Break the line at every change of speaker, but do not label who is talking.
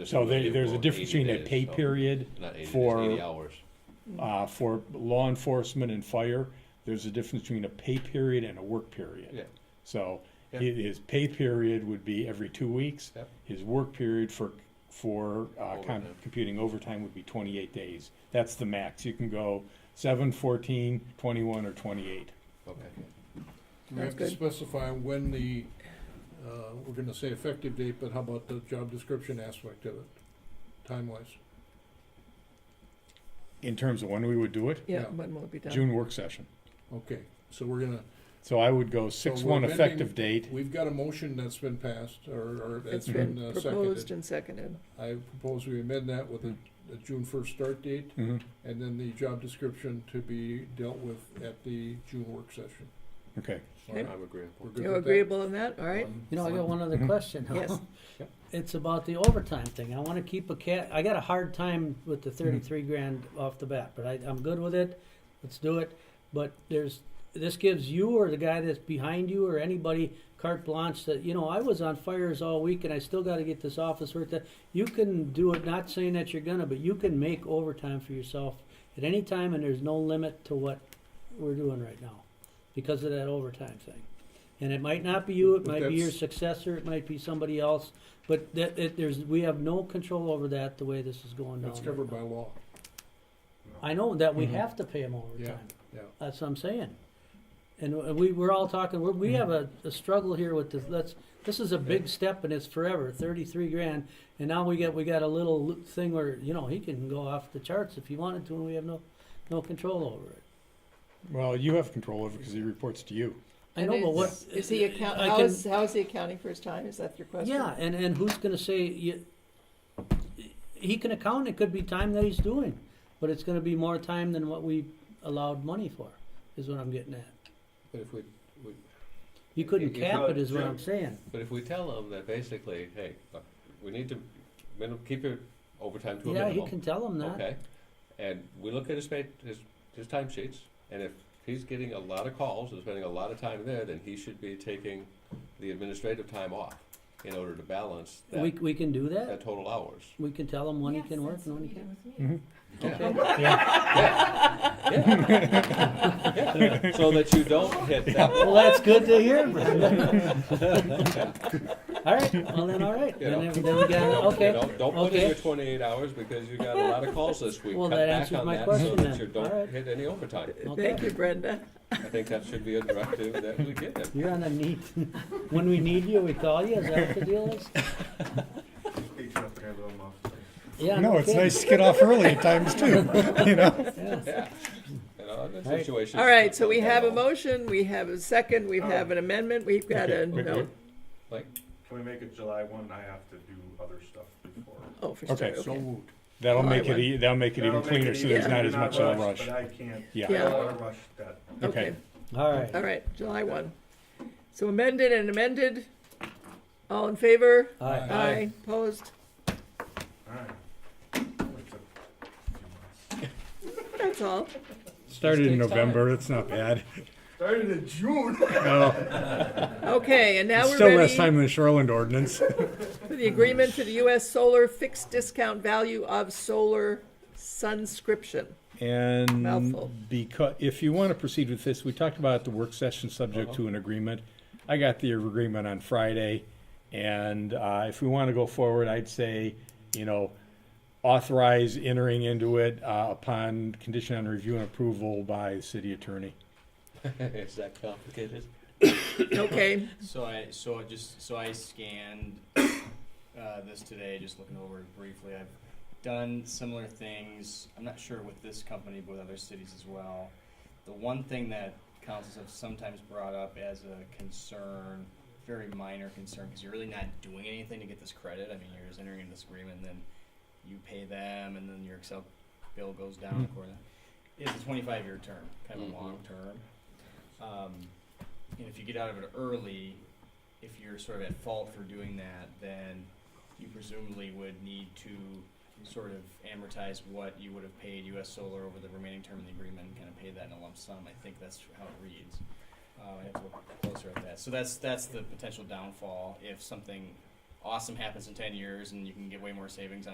So there, there's a difference between a pay
period
period
Not eighty,
for-
days, eighty hours.
uh, for law enforcement and fire, there's a difference between a pay period and a work period.
Yeah.
So
Yeah.
hi- his pay period would be every two weeks.
Yep.
His work period for, for uh, com-
Overtime.
computing overtime would be 28 days. That's the max. You can go 7, 14, 21, or 28.
Okay.
Do we have to
That's
specify when the, uh, we're gonna say effective date, but how about the job description aspect of it, time-wise?
In terms of when we would do it,
Yeah,
Yeah.
when will it be done?
June work session.
Okay, so we're gonna,
So I would go 6 1
we're amending-
effective date.
we've got a motion that's been passed, or, or
It's
that's
been
been uh,
proposed
seconded.
and seconded.
I propose we amend that with a, a June first start date,
Mhm.
and then the job description to be dealt with at the June work session.
Okay.
All right,
I'm agreeable.
We're good
You
with that?
agreeable in that, all right?
Um,
You know, I got one other
Mhm.
question. huh?
Yes.
Yep.
It's about the overtime thing. I wanna keep a cat, I got a hard time with the thirty-three grand off the bat, but I, I'm good with it. Let's do it. But there's, this gives you or the guy that's behind you or anybody carte blanche that, you know, I was on fires all week and I still gotta get this office work done. You can do it, not saying that you're gonna, but you can make overtime for yourself at any time and there's no limit to what we're doing right now because of that overtime thing. And it might not be you, it
But
might be your
that's-
successor, it might be somebody else, but that, it, there's, we have no control over that, the way this is going down.
That's
right
covered by
now.
law,
I know that we
Mhm.
have to pay them overtime,
Mm-hmm. yeah.
that's what I'm saying. And w- we, we're all talking, we're,
Mm-hmm.
we have a, a struggle here with this, let's, this is a big step and it's forever, thirty-three grand. And now we get, we got a little lo- thing where, you know, he can go off the charts if he wanted to, and we have no, no control over it.
Well, you have control over because he reports to you.
I know, but what?
Is- Is he account,
I
how
can-
is, how is he accounting for his time? Is that your question?
Yeah, and, and who's gonna say, you, he can account, it could be time that he's doing, but it's gonna be more time than what we allowed money for, is what I'm getting at.
But if we, we,
You couldn't
If you
cap
go-
it, is what I'm
sure.
saying.
but if we tell them that basically, hey, look, we need to, minim, keep your overtime to a
Yeah,
minimum.
you can tell him that.
Okay, and we look at his pay, his, his time sheets, and if he's getting a lot of calls and spending a lot of time there, then he should be taking the administrative time off in order to balance
We,
that,
we can do that,
that total hours.
we can tell him when he can work and when he can't.
Mm-hmm.
Mm-hmm. Yeah.
Yeah.
Yeah. So that you don't hit that.
Well, that's good to hear, Brenda. All right, well then, all right, then,
Yeah.
then we got,
You
okay.
know, don't put in
Okay.
your twenty-eight hours because you got a lot of calls this week.
Well,
Cut
that
back
answers
on
my
that
question
So
then.
that you
Alright.
don't hit any overtime.
Uh, Thank
Okay.
you, Brenda.
I think that should be a directive that we give him.
You're on a need, when we need you, we call you, is that what the deal is? Yeah.
No, it's
kidding.
nice to get off early at times too. You know.
Yeah.
Yeah. You know, in that
Alright.
situation.
All right, so we have a motion, we have a second, we have an amendment, we've got a,
Okay.
no,
Like,
Can we make it July one? I have to do other stuff before.
oh, for sure,
Okay,
So
okay.
moved.
That'll
Well, I
make it,
would.
e- that'll make it even
That'll make
cleaner, so
easier.
there's not as much of a rush.
But I can't, I
Yeah,
Yeah.
don't wanna rush that.
okay.
All right.
All right, July one. So amended and amended, all in favor?
All right.
Aye.
Opposed?
Alright. It's a few months.
That's all.
Started in
takes time.
November, it's not bad.
Started in June.
No,
Okay, and now
it's
we're
still less
ready
time than the Shoreland ordinance.
for the agreement for the US Solar Fixed Discount Value of Solar Sunscription. Mouthful.
And because, if you want to proceed with this, we talked about the work session subject to an agreement. I got the agreement on Friday, and uh, if we want to go forward, I'd say, you know, authorize entering into it uh, upon condition on review and approval by the city attorney.
is that complicated?
Okay,
So I so I just so I scanned uh, this today, just looking over it briefly. I've done similar things. I'm not sure with this company, but with other cities as well. The one thing that councils have sometimes brought up as a concern, very minor concern, because you're really not doing anything to get this credit. I mean, you're just entering into this agreement, and then you pay them, and then your Excel bill goes down
Mhm.
accordingly. It's a 25 year term, kind of
Mhm.
a long term. Um, and if you get out of it early, if you're sort of at fault for doing that, then you presumably would need to sort of amortize what you would have paid U.S. Solar over the remaining term of the agreement and kind of pay that in a lump sum. I think that's how it reads. Uh, I have to look closer at that. So that's that's the potential downfall if something awesome happens in ten years, and you can get way more savings on